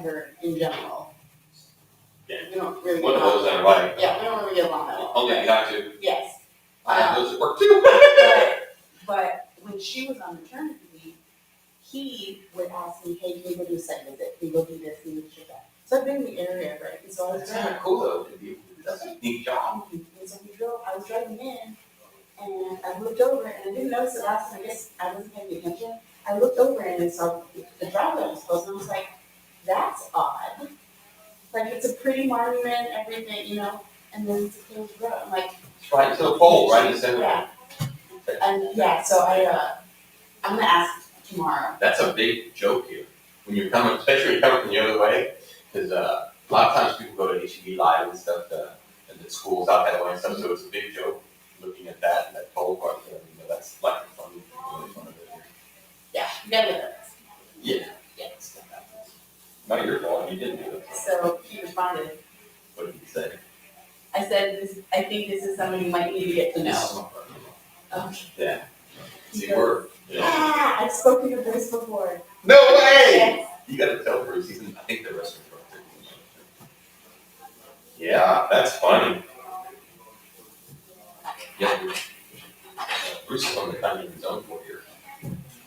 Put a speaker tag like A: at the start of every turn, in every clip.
A: her in general.
B: Yeah.
A: We don't really.
B: One of those I
A: allow-
B: like.
A: Yeah, we don't really allow that.
B: Only you have to,
A: Yes.
B: I have those at work too.
A: But- But when she was on maternity leave, he would ask me, hey, can you go do a site visit? Can you go do this, can you do that? So I've been in the area, right? And so I was
B: That's kind
A: driving,
B: of cool though, to be, that's a neat job.
A: and so we drove, Oh, I was driving in and I looked over and I didn't notice the last time, I guess I wasn't paying attention. I looked over and I saw the drive that was closed and I was like, that's odd. Like, it's a pretty monument, everything, you know, and then it's a closed road. I'm like,
B: It's Right to the pole, right in the center.
A: Yeah. And yeah, so I, uh, I'm gonna ask tomorrow.
B: That's a big joke here. When you're coming, especially when you're coming from the other way, because uh, a lot of times people go to HEB live and stuff, uh, and the schools out that way and stuff, so it's a big joke looking at that and that pole part there. You know, that's like a fun, really fun of it.
A: Yeah, you gotta do that.
B: Yeah.
A: Yeah, it's gonna happen.
B: Not your fault, you didn't do it.
A: So he responded,
B: What did you say?
A: I said, this, I think this is someone you might need to get to know.
B: Oh,
A: Okay.
B: Yeah.
A: He
B: See,
A: goes,
B: we're, you know.
A: Ah, I've spoken to Bruce before.
B: No way!
A: Yes.
B: You gotta tell Bruce, he's in, I think the restaurant. Yeah, that's funny. Yeah. Bruce. Bruce is on the kind of his own for here.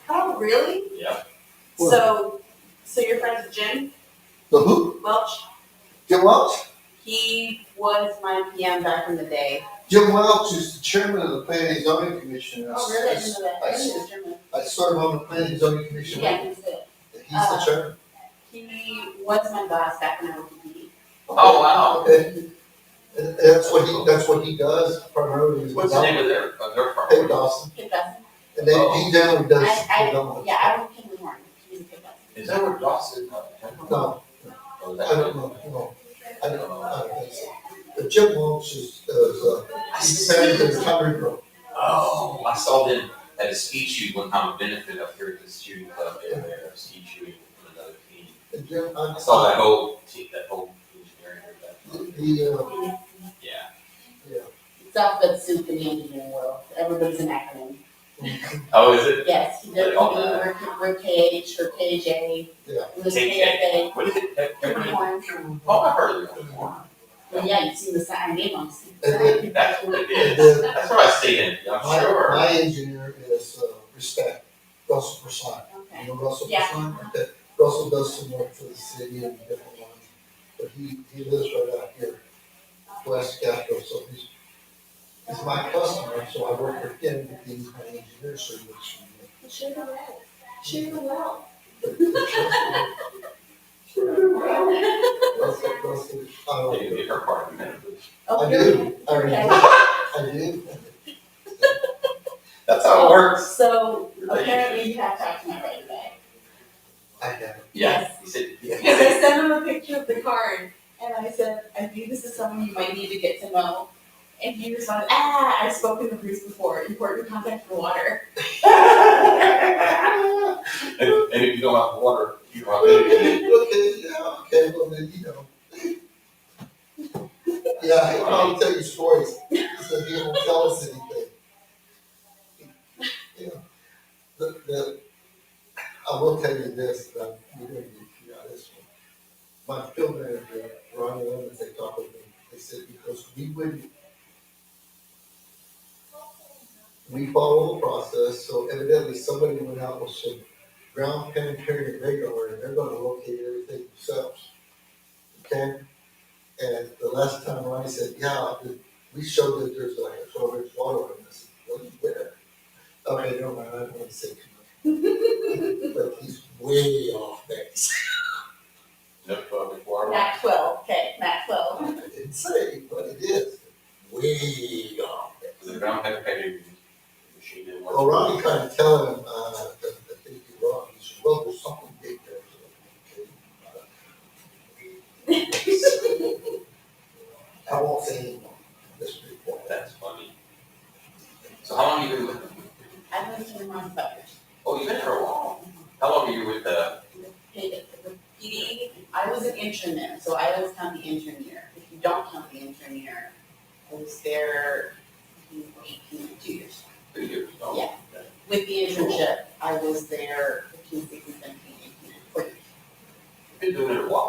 A: Oh, really?
B: Yeah.
C: What?
A: So, so your friend's Jim
C: The who?
A: Welch,
C: Jim Welch?
A: he was my PM back in the day.
C: Jim Welch is the chairman of the Planning and Zoning Commission.
A: Oh, I didn't know that. I didn't know it was Jim.
C: I serve on the Planning and Zoning Commission.
A: Yeah, Uh-huh. he's it.
C: and He's the chairman.
A: He was my boss back when I was a PD.
B: Oh, wow.
C: And and that's what he, that's what he does primarily. is
B: What's the name Oh. of their, of their firm?
C: Hey, Dawson.
A: Pick us.
C: And then he generally does.
A: I, I,
C: development.
A: yeah, I don't think we weren't, we pick us.
B: Is that where Dawson? uh, Temple?
C: No,
B: Or is
C: I
B: that-
C: don't know, no, I don't know, I don't think so. But Jim Welch is, is, uh, he's married to the Coventry Group.
B: Oh, I saw them at a ski shoot one time, a benefit up here at the student club, they were there, ski shooting with another team.
C: And Jim, I
B: I saw that whole, team- that whole engineering, that,
C: The, uh,
B: yeah.
C: yeah.
A: It's all good soup in the engineering world, everybody's an acronym.
B: Oh, is it?
A: Yes, he did,
B: Like all that.
A: we're, we're KH, or KJ.
C: Yeah.
A: We're KFA.
B: KJ. What is it?
A: Different one.
B: Oh, I heard of it before.
A: Well, yeah, you see the sign, I name on the
C: And then-
A: sign.
B: That's what it
C: And
B: is.
C: then
B: That's what I see in, I'm
C: My,
B: sure.
C: my engineer is uh, Respect, Russell Persson. You
A: Okay,
C: know Russell
A: Yeah.
C: Persson? That- Russell does some work for the city and different ones, but he, he lives right out here, West Capitol, so he's, he's my customer, so I work with him, but he's my engineer service.
A: share the wealth, share the wealth.
C: Russell, Russell, I
B: I'll
C: don't
B: give you
C: know.
B: her part in a minute.
C: I
A: Oh, really?
C: do, I really,
A: Okay.
C: I do.
B: That's how it works.
A: So apparently you have talked to my right away.
C: I have,
B: Yeah, he said,
A: Because I
B: yeah.
A: sent him a picture of the card and I said, I think this is someone you might need to get to know. And he responded, ah, I've spoken to Bruce before, important contact for water.
B: And, and if you don't have water, you don't have anything.
C: Okay, okay, yeah, okay, well then, you know. Yeah, he'll probably tell you stories, so he won't tell us anything. Yeah, the, the, I will tell you this, but you're gonna get out of this one. My field manager, Ronnie Lemons, they talked with me, they said, because we wouldn't. We follow the process, so evidently somebody went out with some ground penetrating radar, and they're gonna locate everything themselves. Okay? And the last time Ronnie said, yeah, the- we showed that there's like a twelve inch water in this, where? Okay, never mind, Oh, I don't wanna say too much. But he's way off base.
B: No public water.
A: Not twelve, okay, not twelve.
C: I didn't say, but it is way off base.
B: The ground penetrating machine didn't work.
C: Well, Ronnie kind of tell him, uh, that, that they do wrong, he said, well, there's something big there. So, okay. uh, I won't say anymore, this report.
B: That's funny. So how long you been with them?
A: I went to the wrong butters.
B: Oh, you've been here a while. How long are you with, uh,
A: Hey, the PD, I was an intern there, so I always count the intern year. If you don't count the intern year, I was there eighteen, two years.
B: two years? Oh,
A: Yeah. With the internship, I was there fifteen, sixteen, seventeen, eighteen, and twenty.
B: been doing it a while.